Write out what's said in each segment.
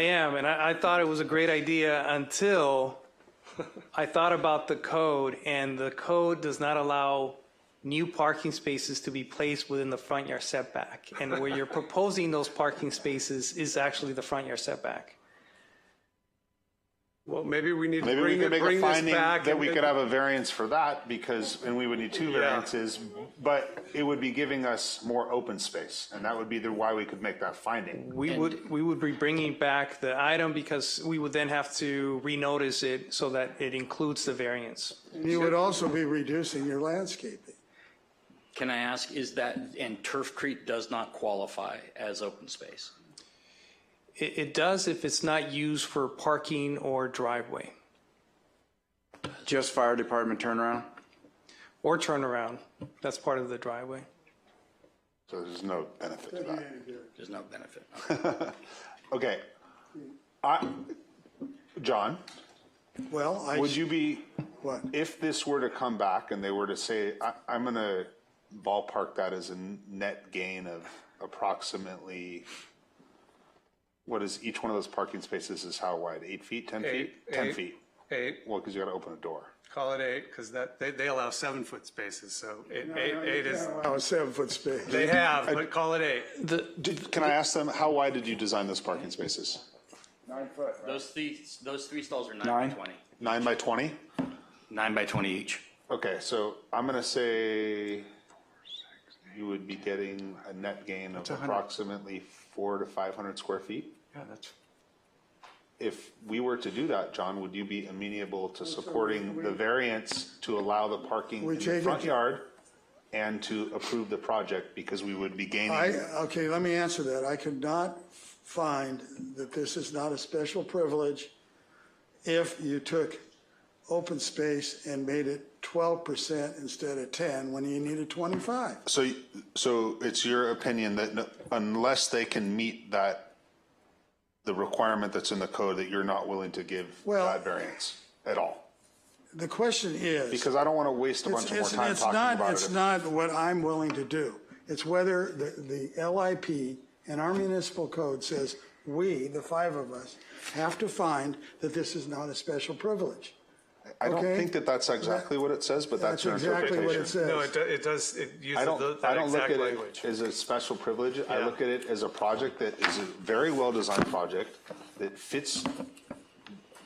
I am, and I, I thought it was a great idea until I thought about the code, and the code does not allow new parking spaces to be placed within the front yard setback. And where you're proposing those parking spaces is actually the front yard setback. Well, maybe we need to Maybe we bring, could it- make a bring this finding back. that and- we could have a variance for that because, and we would need two variances, but it would be giving us more open space. And that would be the, why we could make that finding. We would, we would be bringing back the item because we would then have to renotice it so that it includes the variance. You would also be reducing your landscaping. Can I ask, is that, and Turfcrete does not qualify as open space? It, it does if it's not used for parking or driveway Just fire department turnaround? or turnaround. That's part of the driveway. So there's no benefit to that. There's no benefit. Okay. I, John, Well, I, would you be, what? if this were to come back and they were to say, I, I'm going to ballpark that as a net gain of approximately, what is each one of those parking spaces is how wide? Eight feet, 10 feet? Eight, 10 eight. feet. Eight, Well, because you got to open a door. call it eight, because that, they, they allow seven-foot spaces, so eight, eight eight is, Oh, seven-foot space. they have, but call it eight. Did, can I ask them, how wide did you design those parking spaces? Those three, those three stalls are nine Nine? by 20. Nine by 20? Nine by 20 each. Okay, so I'm gonna say you would be getting a net gain of approximately four to 500 square feet. Yeah, that's. If we were to do that, John, would you be amenable to supporting the variance to allow the parking We in the change it front to- yard and to approve the project because we would be I, gaining? okay, let me answer that. I could not find that this is not a special privilege if you took open space and made it 12% instead of 10 when you needed 25. So, y- so it's your opinion that no- unless they can meet that, the requirement that's in the code, that you're not willing to give Well- that variance at all? The question is. Because I don't want to waste a bunch It's, of more it's, time it's talking not, about it's it. not what I'm willing to do. It's whether the, the LIP and our municipal code says we, the five of us, have to find that this is not a special privilege. I don't okay. think that that's exactly what it says, but that's your exactly what it interpretation. says. No, it, do- it does, it I uses don't, tho- I that don't look exact at it language. as a special privilege. I Yeah. look at it as a project that is a very well-designed project that fits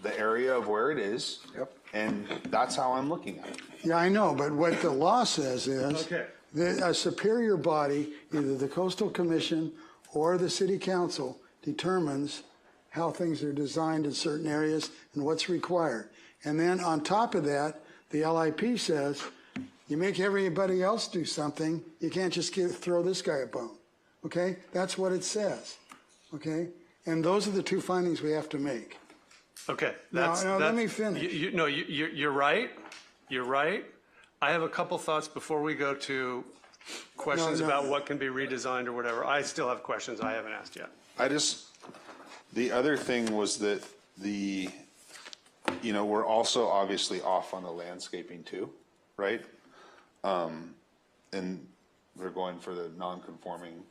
the area of where it is. Yep. And that's how I'm looking at it. Yeah, I know, but what the law says is Okay. that a superior body, either the coastal commission or the city council, determines how things are designed in certain areas and what's required. And then on top of that, the LIP says, you make everybody else do something, you can't just give, throw this guy a bone. Okay? That's what it says. Okay? And those are the two findings we have to make. Okay, that's. no, let that's- me finish. you- You, no, you, you're, you're right, you're right. I have a couple thoughts before we go to questions No, no. about what can be redesigned or whatever. I still have questions I haven't asked yet. I just, the other thing was that the, you know, we're also obviously off on the landscaping too, right? Um, and we're going for the non-conforming,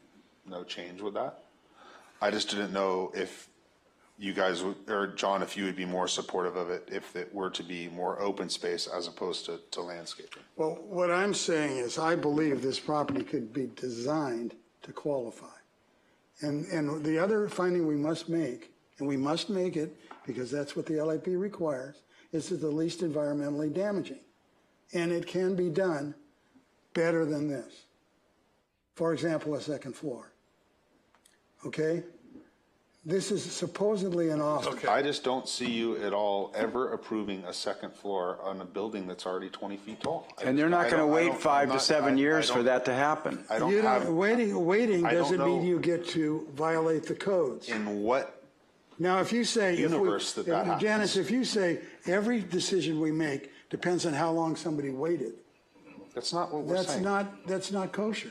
no change with that. I just didn't know if you guys, would- or John, if you would be more supportive of it if it were to be more open space as opposed to, to landscaping. Well, what I'm saying is, I believe this property could be designed to qualify. And, and the other finding we must make, and we must make it, because that's what the LIP requires, is that the least environmentally damaging. And it can be done better than this. For example, a second floor. Okay? This is supposedly an Austin. I just don't see you at all ever approving a second floor on a building that's already 20 feet tall. I And they're just- I not going to don't- I wait don't- five I'm to not- seven I- I years for don't- that to happen. I You don't don't, have, waiting, waiting I don't doesn't mean know- you get to violate the codes. in what, Now, if you say. if we- Universe that that if- Janice, if you say every decision we make depends on how long somebody waited, that's not what we're that's saying. not, that's not kosher.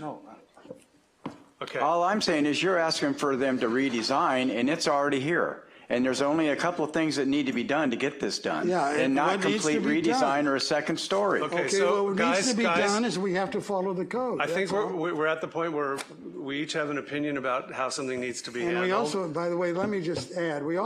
Okay. All I'm saying is you're asking for them to redesign, and it's already here. And there's only a couple of things that need to be done to get this done. Yeah, and And not what needs to complete be done? redesign or a second story. Okay, Okay, so what needs guys, to be done guys, is we have to follow the code. I think that's we're, all. we- we're at the point where we each have an opinion about how something needs to be handled. And we also, by the way, let me just add, we